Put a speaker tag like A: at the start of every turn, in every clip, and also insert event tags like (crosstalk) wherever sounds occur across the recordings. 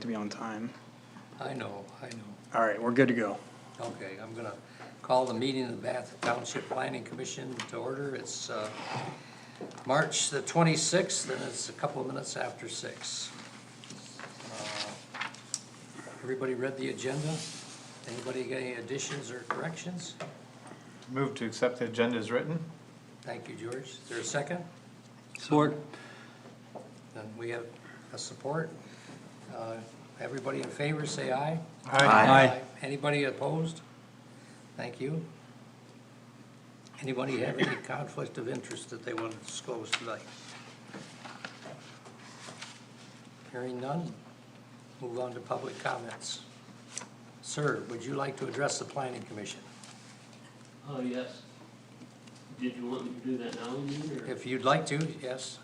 A: to be on time.
B: I know, I know.
A: All right, we're good to go.
B: Okay, I'm gonna call the meeting of the Bath Township Planning Commission to order. It's, uh, March the twenty-sixth, and it's a couple of minutes after six. Uh, Everybody read the agenda? Anybody got any additions or corrections?
C: Move to accept the agenda as written.
B: Thank you, George. Is there a second?
D: Support.
B: Then we have a support. Uh, Everybody in favor, say aye.
D: Aye.
B: Anybody opposed? Thank you. Anybody have any conflict of interest that they want to disclose tonight? Hearing none, move on to public comments. Sir, would you like to address the planning commission?
E: Oh, yes. Did you want me to do that now, you mean, or?
B: If you'd like to, yes.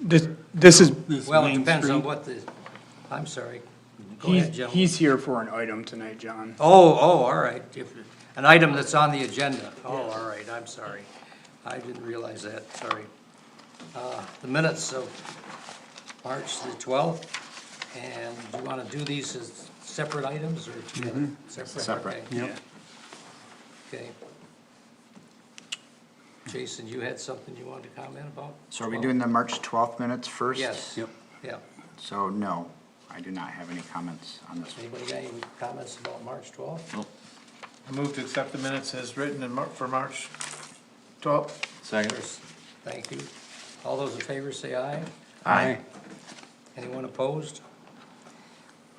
A: This, this is,
B: Well, it depends on what the, I'm sorry. Go ahead,
A: he's,
B: gentlemen.
A: he's here for an item tonight, John.
B: Oh, oh, all right, if, an item that's on the agenda, oh, all right, I'm sorry. I didn't realize that, sorry. Uh, the minutes of March the twelfth, and do you wanna do these as separate items or together?
C: Separate.
A: Mm-hmm.
B: okay,
A: Yep.
B: Okay. Jason, you had something you wanted to comment about?
F: So are we doing the March twelfth minutes first?
B: Yes,
D: Yep.
B: yeah,
F: So, no, I do not have any comments on this.
B: anybody got any comments about March twelfth?
C: Move to accept the minutes as written in Mar- for March twelfth.
D: Second.
B: Thank you, all those in favor say aye.
D: Aye.
B: Anyone opposed?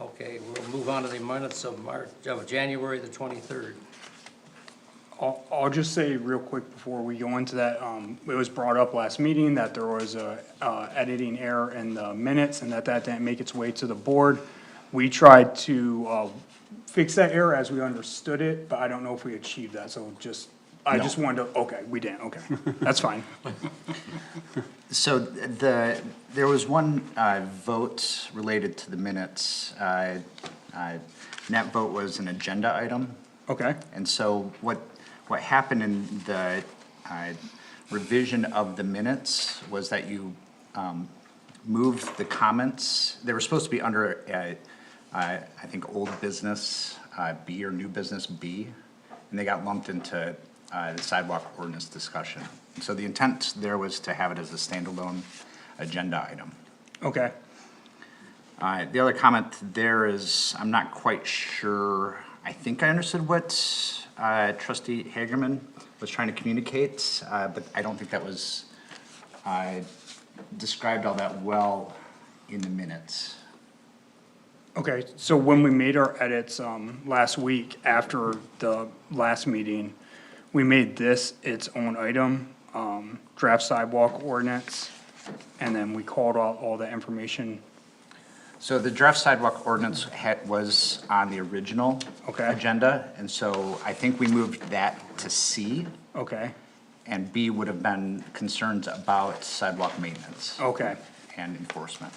B: Okay, we'll move on to the minutes of March, of January the twenty-third.
A: I'll, I'll just say real quick before we go into that, um, it was brought up last meeting that there was a, uh, editing error in the minutes and that that didn't make its way to the board. We tried to, uh, fix that error as we understood it, but I don't know if we achieved that, so just, I just wanted to, okay, we didn't, okay, that's
B: (laughs)
A: fine.
F: So the, there was one uh, vote related to the minutes. Uh, uh, That vote was an agenda item.
A: Okay,
F: And so what, what happened in the uh, revision of the minutes was that you um, moved the comments, they were supposed to be under, uh, uh, I think, old business uh, B or new business B, and they got lumped into uh, the sidewalk ordinance discussion. And So the intent there was to have it as a standalone agenda item.
A: okay,
F: Uh, the other comment there is, I'm not quite sure, I think I understood what, uh, trustee Hagerman was trying to communicate, uh, but I don't think that was, uh, described all that well in the minutes.
A: okay. So when we made our edits, um, last week after the last meeting, we made this its own item, um, draft sidewalk ordinance. And then we called out all the information.
F: So the draft sidewalk ordinance had, was on the original
A: Okay.
F: agenda, and so I think we moved that to C,
A: Okay,
F: and B would have been concerns about sidewalk maintenance
A: okay.
F: and enforcement.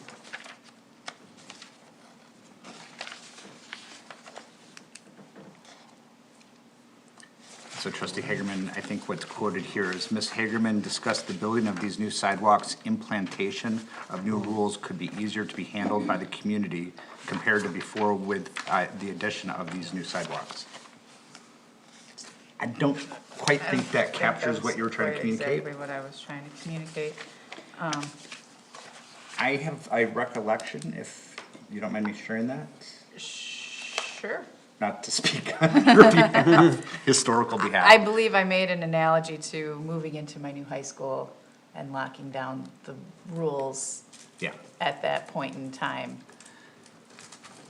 F: So trustee Hagerman, I think what's quoted here is, Ms. Hagerman discussed the building of these new sidewalks, implantation of new rules could be easier to be handled by the community compared to before with, uh, the addition of these new sidewalks. I don't quite
G: I
F: think that captures what you were trying to communicate.
G: Exactly what I was trying to communicate.
F: I have a recollection, if you don't mind me sharing that,
G: Sure.
F: not to speak (laughs) on
G: (laughs)
F: your behalf, historical
G: I
F: behalf.
G: believe I made an analogy to moving into my new high school and locking down the rules
F: Yeah,
G: at that point in time.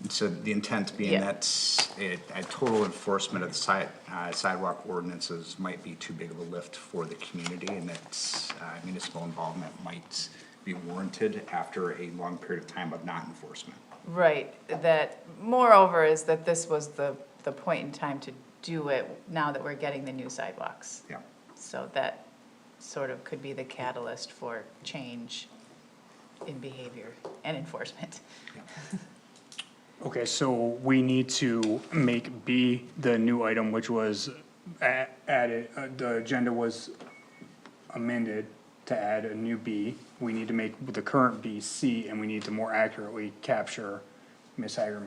F: and so the intent being
G: Yeah.
F: that it, a total enforcement of the side, uh, sidewalk ordinances might be too big of a lift for the community and that uh, municipal involvement might be warranted after a long period of time of not enforcement.
G: Right, that moreover is that this was the, the point in time to do it now that we're getting the new sidewalks.
F: Yeah,
G: So that sort of could be the catalyst for change in behavior and enforcement.
A: Okay, so we need to make B the new item, which was a- added, uh, the agenda was amended to add a new B. We need to make the current B C, and we need to more accurately capture Ms. Hagerman.